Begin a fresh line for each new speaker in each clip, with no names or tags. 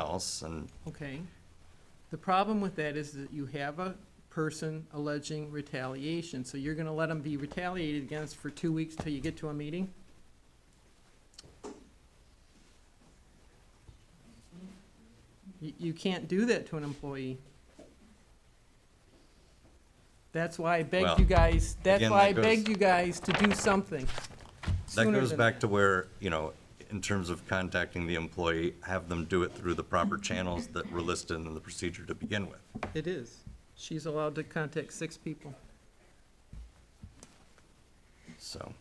else, and
Okay. The problem with that is that you have a person alleging retaliation, so you're gonna let them be retaliated against for two weeks till you get to a meeting? You, you can't do that to an employee. That's why I begged
Well,
you guys, that's
again,
why I
that goes-
begged you guys to do something
that
sooner
goes
than
back to where, you know, in terms of contacting the employee, have them do it through the
Mm-hmm.
proper channels that were listed in the procedure to begin with.
It is. She's allowed to contact six people.
So,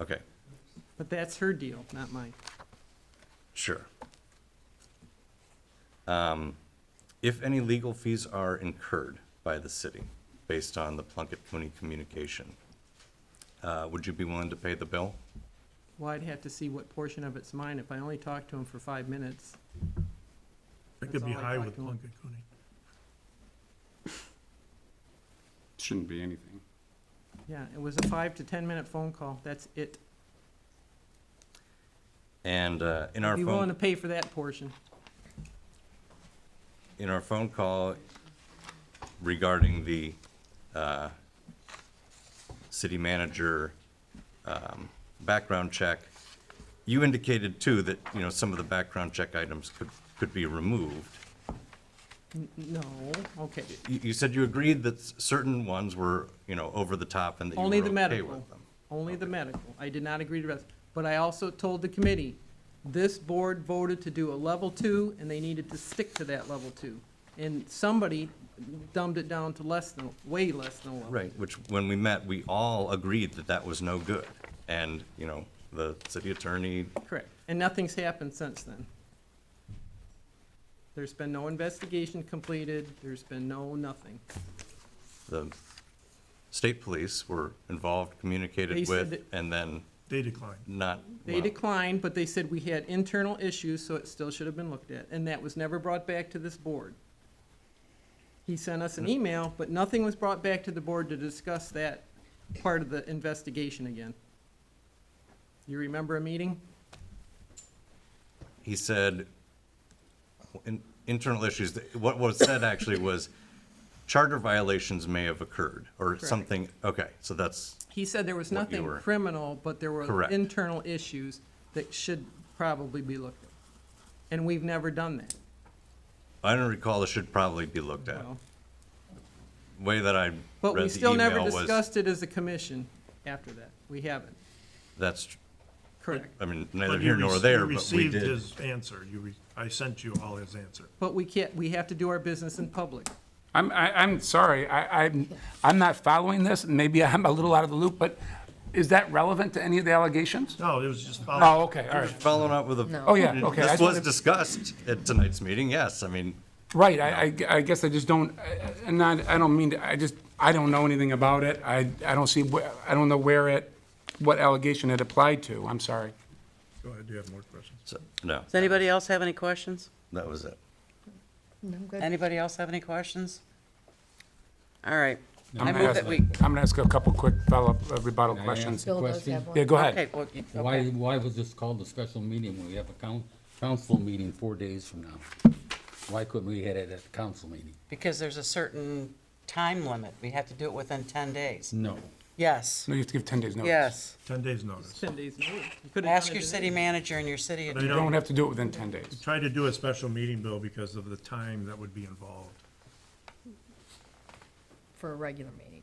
okay,
But that's her deal, not mine.
sure. Um, If any legal fees are incurred by the city based on the Plunkett Cooney communication, uh, would you be willing to pay the bill?
Well, I'd have to see what portion of it's mine. If I only talk to him for five minutes,
That could be
That's all I
high
talked
with
to him.
Plunkett Cooney.
Shouldn't be anything.
yeah, it was a five to ten-minute phone call. That's it.
And uh, in our
Be willing to
phone,
pay for that portion.
in our phone call regarding the uh, city manager um, background check, you indicated too that, you know, some of the background check items could, could be removed.
N- No, okay.
You, you said you agreed that s- certain ones were, you know, over the top and that you
Only the
were okay
medical.
with them.
Only the medical. I did not agree to rest. But I also told the committee, this board voted to do a level two, and they needed to stick to that level two. And somebody dumbed it down to less than, way less than a level.
Right, which, when we met, we all agreed that that was no good. And, you know, the city attorney,
Correct, and nothing's happened since then. There's been no investigation completed, there's been no nothing.
the state police were involved,
They
communicated
said
with, and then
They declined.
not,
They
well,
declined, but they said we had internal issues, so it still should have been looked at, and that was never brought back to this board. He sent us an email, but nothing was brought back to the board to discuss that part of the investigation again. You remember a meeting?
he said, in- internal issues, what was said actually was charter violations may have occurred, or something, okay, so that's,
He said there was
What you
nothing
were-
criminal, but there were
Correct.
internal issues that should probably be looked at. And we've never done that.
I don't recall, it should probably be looked at.
Well,
Way that I
But we
read the
still never
email was,
discussed it as a commission after that. We haven't,
that's, tr-
correct.
I mean,
But
neither
you
here nor
rec-
there,
You
but we
received
did.
his answer. You, re- I sent you all his answer.
But we can't, we have to do our business in public.
I'm, I, I'm sorry, I, I'm, I'm not following this, and maybe I'm a little out of the loop, but is that relevant to any of the allegations?
No, it was just. follow-
Oh, okay, all right.
Following up with a.
Oh, yeah, okay,
This
I just
was
wanted-
discussed at tonight's meeting, yes, I mean,
Right, I, I, I guess I just don't, I- I'm not, I don't mean, to- I just, I don't know anything about it. I, I don't see, where- I don't know where it, what allegation it applied to, I'm sorry.
Go ahead, do you have more questions?
so, no,
Does anybody else have any questions?
that was it.
Anybody else have any questions? All right. I
I'm gonna
move
ask-
that we,
I'm gonna ask a couple quick follow-up uh, rebuttal
Can I
questions.
ask a
Bill does
question?
have one.
Yeah, go
okay,
ahead.
well, you-
Why,
okay.
why was this called a special meeting when we have a coun- council meeting four days from now? Why couldn't we had it at the council meeting?
because there's a certain time limit. We have to do it within 10 days.
No.
Yes,
No, you have to give 10 days notice.
yes.
Ten days notice.
Ten days. notice. You could've done
Ask
it
your
in-
city manager and your city
They
You
attorney.
don't have to do it within 10 days.
Tried to do a special meeting, Bill, because of the time that would be involved.
for a regular meeting.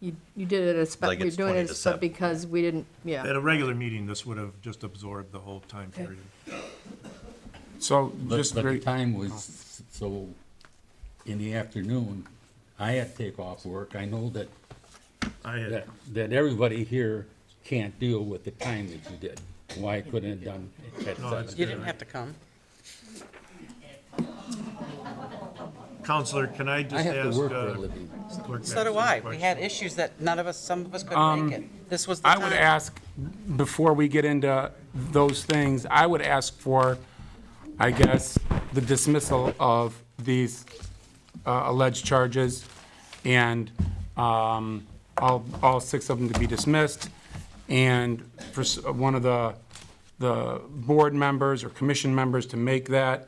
You, you did it as, spe-
Like
you're
it's
doing
20
it
to
as,
7.
but because we didn't,
At
yeah.
a regular meeting, this would have just absorbed the whole time period.
So
But,
just
but the
very,
time was, s- so, in the afternoon, I had to take off work. I know that,
I had,
that, that everybody here can't deal with the time that you did. Why couldn't it done at
No, it's
seven?
You didn't have to come.
Counselor, can I
I
just
have
ask?
to work for a
uh,
living.
clerk
So do
Madison a
I. We had
question?
issues that none of us, some of us couldn't make it. This was the
I
time.
would ask, before we get into those things, I would ask for, I guess, the dismissal of these uh, alleged charges and um, all, all six of them to be dismissed. And for s- one of the the board members or commission members to make that